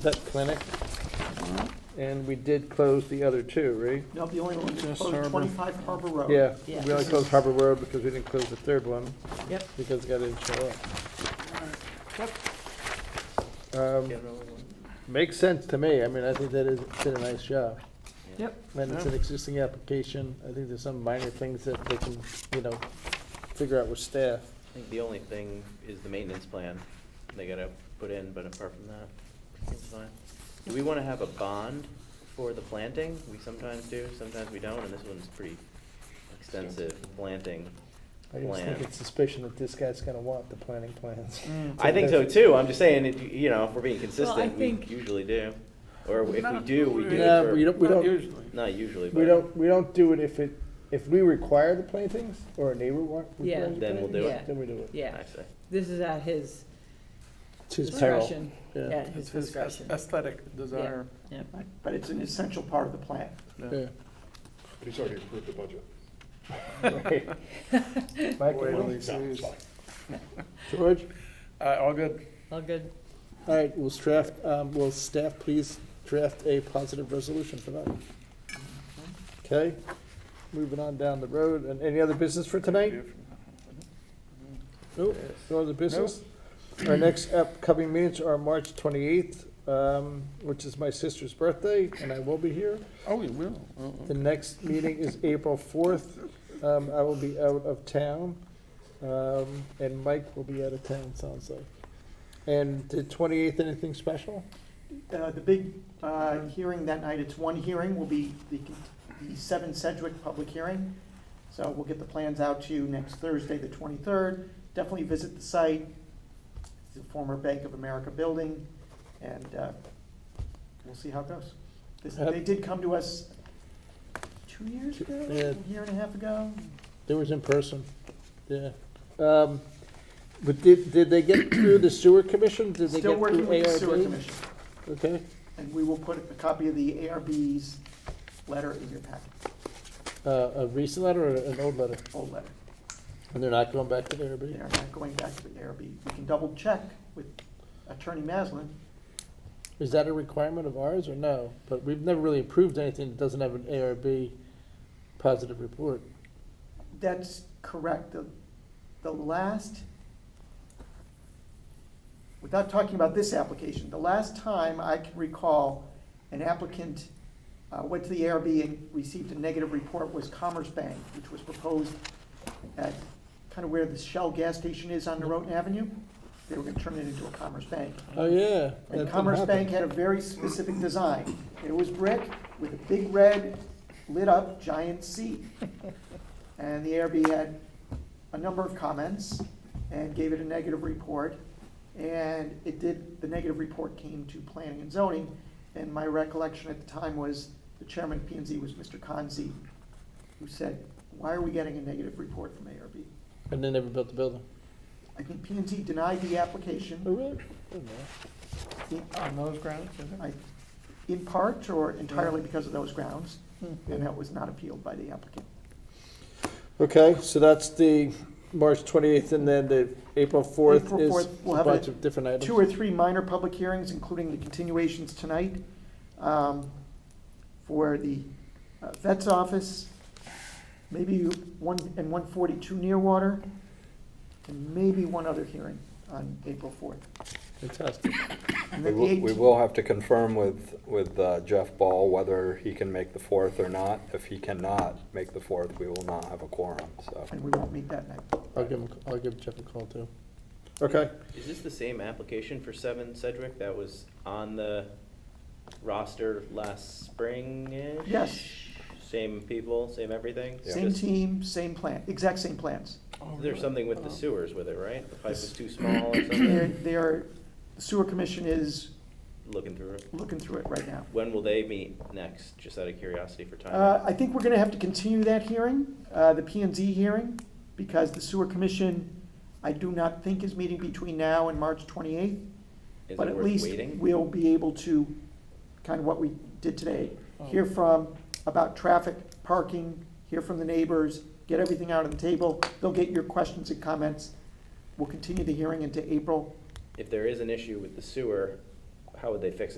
vet clinic, and we did close the other two, right? No, the only one that's Just closed, Harbor. twenty-five Harbor Road. Yeah, we Yeah. only closed Harbor Road because we didn't close the third one, Yep. because the guy didn't show up. Um, Makes sense to me, I mean, I think that is, did a nice job. Yep. And it's an existing application, I think there's some minor things that they can, you know, figure out with staff. I think the only thing is the maintenance plan they gotta put in, but apart from that, it's fine. Do we wanna have a bond for the planting? We sometimes do, sometimes we don't, and this one's pretty extensive planting I just think plan. it's suspicion that this guy's gonna want the planning plans. Mm. I think so too, I'm just saying, it- you know, if we're being consistent, we think- usually do. Or if we Not do, we do Yeah, but you it don't, we Not don't, usually. for, not usually, we but don't, we don't do it if it, if we require the plantings, or a neighbor want. Yeah. requires the Then we'll do plantings, it. Then we do it. Yeah, actually, this is at his It's his peril. discretion. Yeah. At his It's his discretion. aesthetic desire. Yep. Right, But it's an essential part of the plan. Yeah. He's already approved the budget. Mike, Wait till anything? he sees. George? Uh, all good. All good. All right, will staff, um, will staff please draft a positive resolution for that? Okay, moving on down the road, and any other business for tonight? Nope, no other business? Our next upcoming meetings are March twenty-eighth, um, which is my sister's birthday, and I will be here. Oh, we will. Oh, The next meeting is April fourth, um, I will be out of town, um, and Mike will be out of town, sounds like. And did twenty-eighth, anything special? Uh, The big uh, hearing that night, it's one hearing, will be the the 7 Sedgwick public hearing. So we'll get the plans out to you next Thursday, the 23rd. Definitely visit the site, It's the former Bank of America building, and uh, we'll see how it goes. This- They did come to us two years ago, Yeah. a year and a half ago. It was in person, yeah. Um, but did, did they get through the sewer commission? Did they get Still through ARB? working with the sewer commission. Okay, And we will put a copy of the ARB's letter in your packet, uh, a recent letter or an old letter? old letter. And they're not going back to the They ARB? are not going back to the ARB. We can double check with Attorney Maslin. Is that a requirement of ours or no? But we've never really approved anything that doesn't have an ARB positive report. That's correct. The, the last, without talking about this application, the last time I can recall an applicant uh, went to the ARB and received a negative report was Commerce Bank, which was proposed at kind of where the Shell gas station is on Norotan Avenue. They were gonna turn it into a Commerce Bank. Oh, yeah. that And didn't Commerce happen. Bank had a very specific design. It was brick with a big red lit up giant C. And the ARB had a number of comments and gave it a negative report. And it did, the negative report came to planning and zoning. And my recollection at the time was the chairman of P and Z was Mr. Conzi, who said, why are we getting a negative report from ARB? And they never built the building. I think P and Z denied the Oh, application. really? Oh, no. On those grounds, is it? I- in part or entirely because of those grounds, and that was not appealed by the applicant. Okay, so that's the March twenty-eighth and then the April fourth April is 4th, we'll a have a bunch of different items. Two or three minor public hearings, including the continuations tonight um, for the uh, vet's office, maybe one, and 142 Nearwater, and maybe one other hearing on April 4th. Fantastic. And We then the will, we 18th will have to confirm with, with uh, Jeff Ball whether he can make the fourth or not. If he cannot make the fourth, we will not have a quorum, so. And we won't meet that night. I'll give him, I'll give Jeff a call too. Okay, is this the same application for seven Sedgwick that was on the roster last spring? Yes. Same people, same everything? Yeah. Same Just- team, same plan, exact same plans. There's something with the sewers with it, right? The pipe was too small or They're- something? They are, sewer commission is Looking through it. looking through it right now. When will they meet next, just out of curiosity for Uh, timing? I think we're gonna have to continue that hearing, uh, the P and Z hearing, because the sewer commission, I do not think is meeting between now and March twenty-eighth. Is it But at worth least waiting? we'll be able to, kind of what we did today, hear from, about traffic, parking, hear from the neighbors, get everything out on the table. They'll get your questions and comments. We'll continue the hearing into April If there is an issue with the sewer, how would they fix it?